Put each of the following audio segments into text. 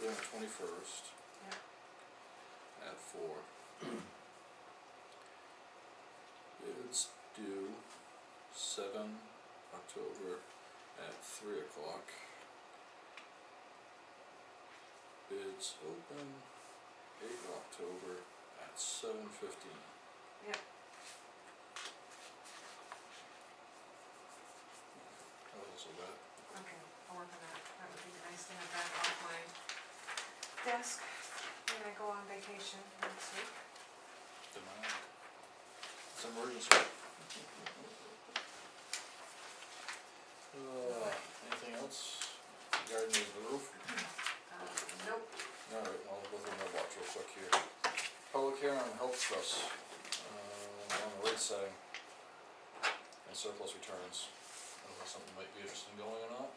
twenty-first. At four. Bids due seven October at three o'clock. Bids open eight October at seven fifteen. Yep. That was a lot. Okay, I'll work on that, that would be nice to have that off my desk when I go on vacation next week. Demand. It's an emergency. Uh, anything else regarding the roof? Um, nope, Alright, I'll go through my watch real quick here. Public hearing on health trust, uh, on the rate setting. And surplus returns, I don't know if something might be interesting going or not.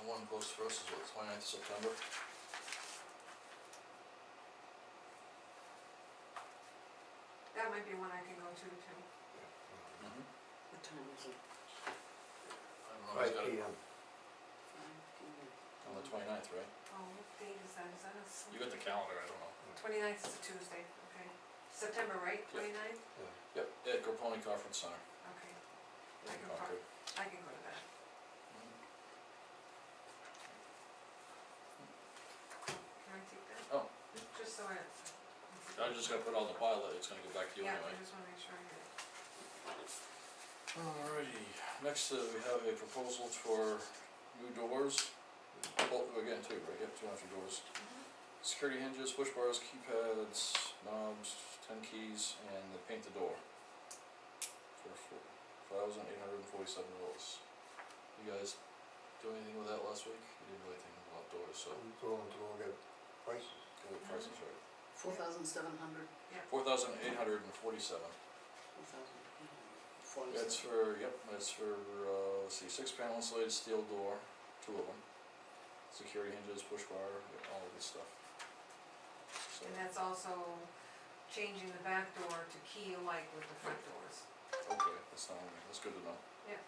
The one close for us is what, 29th of September? that might be one I can go to too. Mm-hmm. What time is it? I don't know, Five he's got it P M. Five p.m. on the 29th, right? Oh, what date is that, is that a? You got the calendar, I don't know. Twenty-ninth is a Tuesday, okay, September, right, Yeah. twenty-ninth, Yep, at Gropone Conference Center. okay, in I can park. Concord. I can go to that. Cool. Can I take that? Oh. Just so I. I was just gonna put it on the pile, that it's gonna go back to you Yeah, I anyway. just wanna make sure I get it. Alrighty, next, uh, we have a proposal for new doors. Well, again, two, right, yep, two after doors. Mm-hmm. Security hinges, push bars, keypads, knobs, ten keys, and they paint the door. For four thousand eight hundred and forty-seven dollars. You guys do anything with that last week? You didn't do anything about doors, so, Go and go get prices. go with prices, right? Four thousand seven hundred, Four thousand eight hundred and forty-seven. four thousand eight hundred, That's forty-seven. for, yep, that's for, uh, let's see, six panel insulated steel door, two of them. Security hinges, push bar, yeah, all of this stuff. So, And that's also changing the back door to key alike with the front doors. okay, that's not, on there. that's good to know. Yeah.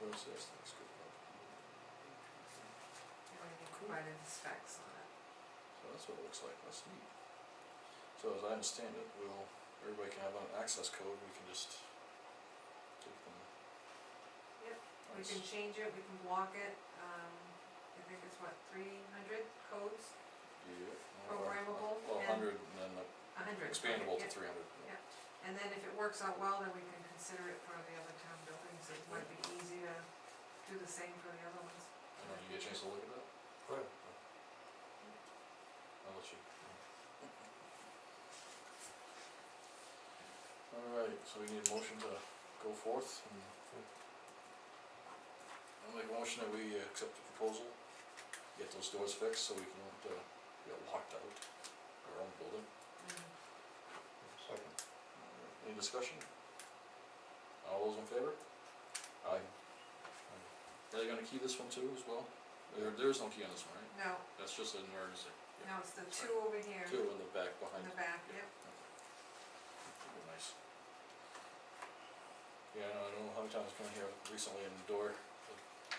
Where's this? That's good. You don't even provided the specs on it. So that's what it looks like, that's neat. So as I understand it, we'll, everybody can have an access code, we can just give them. Yep, We Nice. can change it, we can block it, um, I think it's what, three hundred codes, Yeah. well, uh, Programmable Well, and- hundred and then uh, a hundred. expandable to three hundred. Yeah. And then if it works out well, then we can consider it for the other town buildings, it might be easy to do the same for the other ones. I don't know, you get a chance to look at that? Right. I'll let you. Alright, so we need a motion to go forth and I'll make a motion that we uh, accept the proposal, get those doors fixed so we can, uh, get locked out, our own building. Mm. Second. Any discussion? All those in favor? Aye. Are they gonna key this one too as well? There, there is no key on this one, right? No, That's just an emergency. no, it's the two over here Two in the back in behind. the back, yeah. yep. Be Nice. Yeah, I know, I don't know how many times I've been here recently and the door, the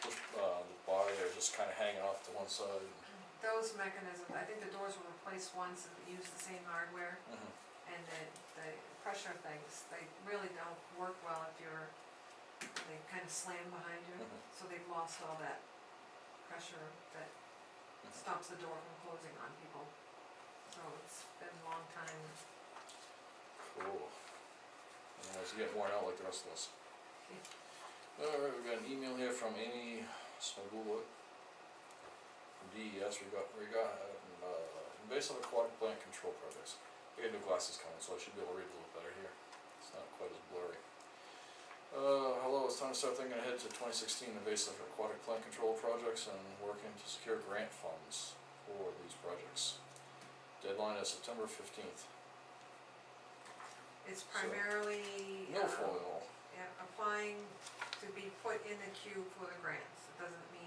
push, uh, the bar there just kinda hanging off to one side and. Those mechanisms, I think the doors were replaced once and used the same hardware, Mhm. and the, the pressure things, they really don't work well if you're, they kind of slam behind you, Mhm. so they've lost all that pressure that Mhm. stops the door from closing on people. So it's been a long time, Cool. Otherwise you get worn out like the rest of us. Alright, we got an email here from Amy Smagula. From DES, we got, we got, uh, invasive aquatic plant control projects. We got new glasses coming, so I should be able to read a little better here. It's not quite as blurry. Uh, hello, it's time to start thinking ahead to twenty sixteen invasive aquatic plant control projects and working to secure grant funds for these projects. Deadline is September fifteenth. it's So- primarily, No um, foil. yeah, applying to be put in the queue for the grants, it doesn't mean